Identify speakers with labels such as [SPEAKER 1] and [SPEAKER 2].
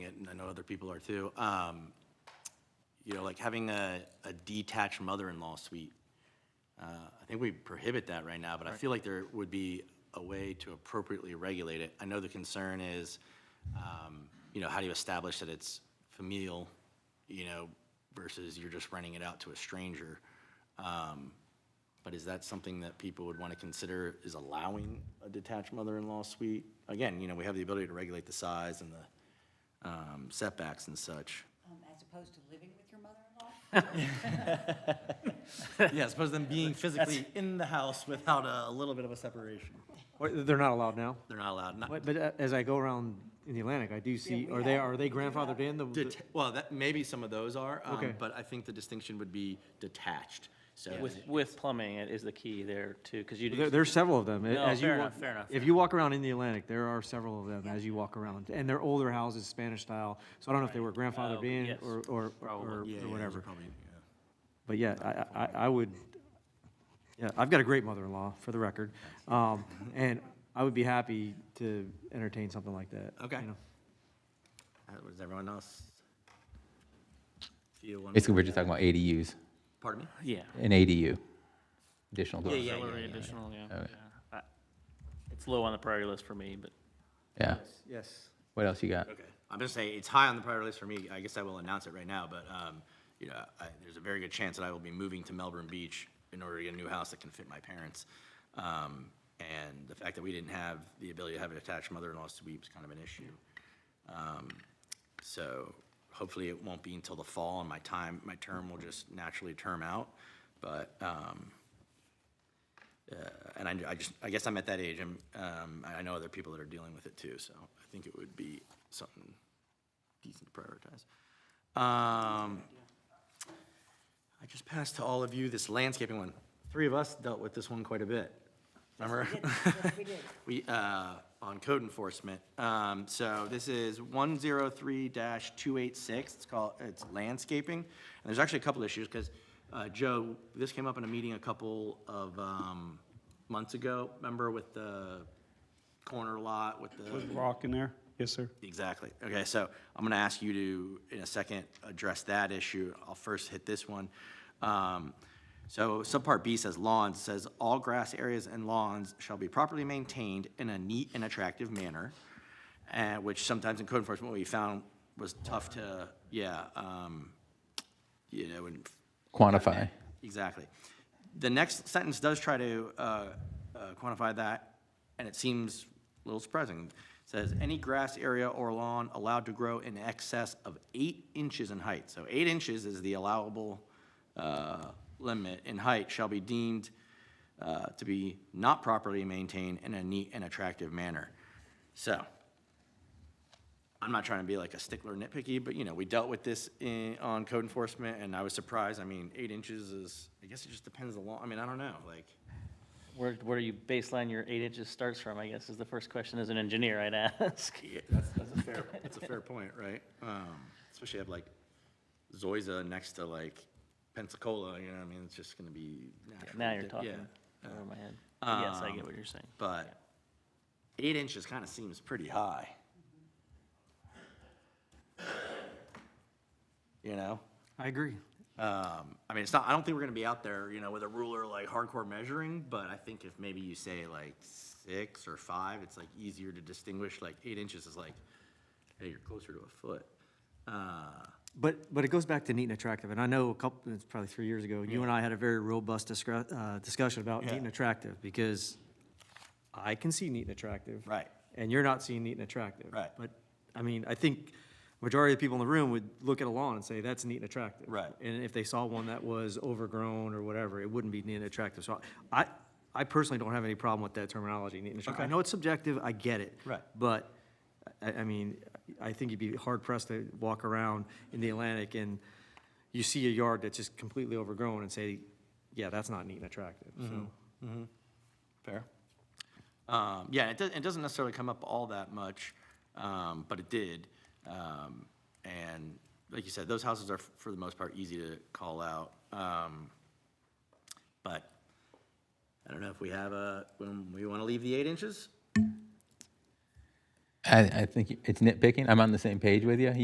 [SPEAKER 1] other people are too, um, you know, like having a, a detached mother-in-law suite. Uh, I think we prohibit that right now, but I feel like there would be a way to appropriately regulate it. I know the concern is, um, you know, how do you establish that it's familial, you know, versus you're just renting it out to a stranger? Um, But is that something that people would want to consider, is allowing a detached mother-in-law suite? Again, you know, we have the ability to regulate the size and the um, setbacks and such.
[SPEAKER 2] Um, as opposed to living with your mother-in-law?
[SPEAKER 1] Yeah, as opposed to them being physically in the house without a little bit of a separation.
[SPEAKER 3] Or They're not allowed now.
[SPEAKER 1] They're not allowed, not,
[SPEAKER 3] But but, uh, as I go around in the Atlantic, I do see,
[SPEAKER 2] we
[SPEAKER 3] are they,
[SPEAKER 2] have-
[SPEAKER 3] are they grandfathered in? The- the-
[SPEAKER 1] deta- well, that, maybe some of those are, um,
[SPEAKER 3] Okay.
[SPEAKER 1] but I think the distinction would be detached, so.
[SPEAKER 4] With, with plumbing it is the key there too, because you.
[SPEAKER 3] There, there's several of them.
[SPEAKER 4] No,
[SPEAKER 3] As you
[SPEAKER 4] fair
[SPEAKER 3] wa-
[SPEAKER 4] enough, fair enough,
[SPEAKER 3] If you walk around in the Atlantic, there are several of them as you walk around. And they're older houses, Spanish style, so I don't know if they were grandfathered
[SPEAKER 4] Oh,
[SPEAKER 3] in
[SPEAKER 4] yes,
[SPEAKER 3] or, or, or-
[SPEAKER 4] probably.
[SPEAKER 3] or
[SPEAKER 1] Yeah, yeah, those are
[SPEAKER 3] whatever.
[SPEAKER 1] probably, yeah.
[SPEAKER 3] But yeah, I- I, I, I would, yeah, I've got a great mother-in-law, for the record. Um, and I would be happy to entertain something like that. you
[SPEAKER 1] Okay.
[SPEAKER 3] know.
[SPEAKER 1] Uh, What does everyone else? feel one way
[SPEAKER 5] Basically,
[SPEAKER 1] or
[SPEAKER 5] we're just
[SPEAKER 1] the
[SPEAKER 5] talking about ADUs,
[SPEAKER 1] other? Pardden me?
[SPEAKER 4] Yeah.
[SPEAKER 5] an ADU, additional dwelling.
[SPEAKER 1] yeah,
[SPEAKER 4] Auxiliary
[SPEAKER 5] yeah.
[SPEAKER 4] additional, yeah,
[SPEAKER 5] Okay.
[SPEAKER 4] yeah. I- It's low on the priority list for me, but
[SPEAKER 5] Yeah.
[SPEAKER 3] Yes.
[SPEAKER 5] What else you got?
[SPEAKER 1] Okay. I'm gonna say it's high on the priority list for me. I guess I will announce it right now, but, um, you know, I, there's a very good chance that I will be moving to Melbourne Beach in order to get a new house that can fit my parents. Um, and the fact that we didn't have the ability to have an attached mother-in-law suite was kind of an issue. Um, so hopefully it won't be until the fall and my time, my term will just naturally term out. But, um, uh, and I, I just, I guess I'm at that age, and, um, I I know other people that are dealing with it too, so I think it would be something decent to prioritize. Um, I just passed to all of you this landscaping one. Three of us dealt with this one quite a bit. Remember?
[SPEAKER 2] Yes, we did.
[SPEAKER 1] We, uh, on code enforcement. Um, so this is one zero three two eight six. It's called, it's landscaping. And there's actually a couple issues, because, uh, Joe, this came up in a meeting a couple of, um, months ago. Remember with the corner lot with the.
[SPEAKER 6] rock in there? Yes, sir.
[SPEAKER 1] Exactly. Okay, so I'm going to ask you to, in a second, address that issue. I'll first hit this one. Um, So subpart B says lawns, It says all grass areas and lawns shall be properly maintained in a neat and attractive manner, uh, which sometimes in code enforcement, we found was tough to, yeah, um, you know, and
[SPEAKER 5] Quantify.
[SPEAKER 1] Exactly. The next sentence does try to uh, uh, quantify that, and it seems a little surprising. It Says, "Any grass area or lawn allowed to grow in excess of eight inches in height." So eight inches is the allowable uh, limit in height shall be deemed uh, to be not properly maintained in a neat and attractive manner. So, I'm not trying to be like a stickler nitpicky, but you know, we dealt with this in, on code enforcement and I was surprised. I mean, eight inches is, I guess it just depends the law. I mean, I don't know, like,
[SPEAKER 4] where, where do you baseline your eight inches starts from, I guess, is the first question as an engineer I'd ask.
[SPEAKER 1] that's, that's a fair, that's a fair point, right? Um, especially have like Zoysia next to like Pensacola, you know, what I mean, it's just gonna be naturally.
[SPEAKER 4] Now you're
[SPEAKER 1] dip-
[SPEAKER 4] talking
[SPEAKER 1] yeah.
[SPEAKER 4] over my head.
[SPEAKER 3] Um,
[SPEAKER 4] But Yes, I get what you're saying.
[SPEAKER 1] But eight inches kind of seems pretty high.
[SPEAKER 4] Mm-hmm.
[SPEAKER 1] You know?
[SPEAKER 3] I agree.
[SPEAKER 1] Um, I mean, it's not, I don't think we're gonna be out there, you know, with a ruler like hardcore measuring, but I think if maybe you say like six or five, it's like easier to distinguish, like eight inches is like, hey, you're closer to a foot. Uh,
[SPEAKER 3] But, but it goes back to neat and attractive, and I know a couple, it's probably three years ago, you and I had a very robust discuss, uh, discussion about neat and attractive, because I can see neat and attractive.
[SPEAKER 1] Right.
[SPEAKER 3] And you're not seeing neat and attractive.
[SPEAKER 1] Right.
[SPEAKER 3] But, I mean, I think majority of the people in the room would look at a lawn and say, that's neat and attractive.
[SPEAKER 1] Right.
[SPEAKER 3] And if they saw one that was overgrown or whatever, it wouldn't be neat and attractive, so I, I personally don't have any problem with that terminology, neat and attractive. I know it's subjective, I get it.
[SPEAKER 1] Right.
[SPEAKER 3] But, I, I mean, I think you'd be hard pressed to walk around in the Atlantic and you see a yard that's just completely overgrown and say, yeah, that's not neat and attractive,
[SPEAKER 1] Mm-hmm.
[SPEAKER 3] so.
[SPEAKER 1] Fair. Um, yeah, it, do, it doesn't necessarily come up all that much, um, but it did. Um, and like you said, those houses are, f- for the most part, easy to call out. Um, but I don't know if we have a, when we want to leave the eight inches?
[SPEAKER 5] I, I think it's nitpicking. I'm on the same page with you.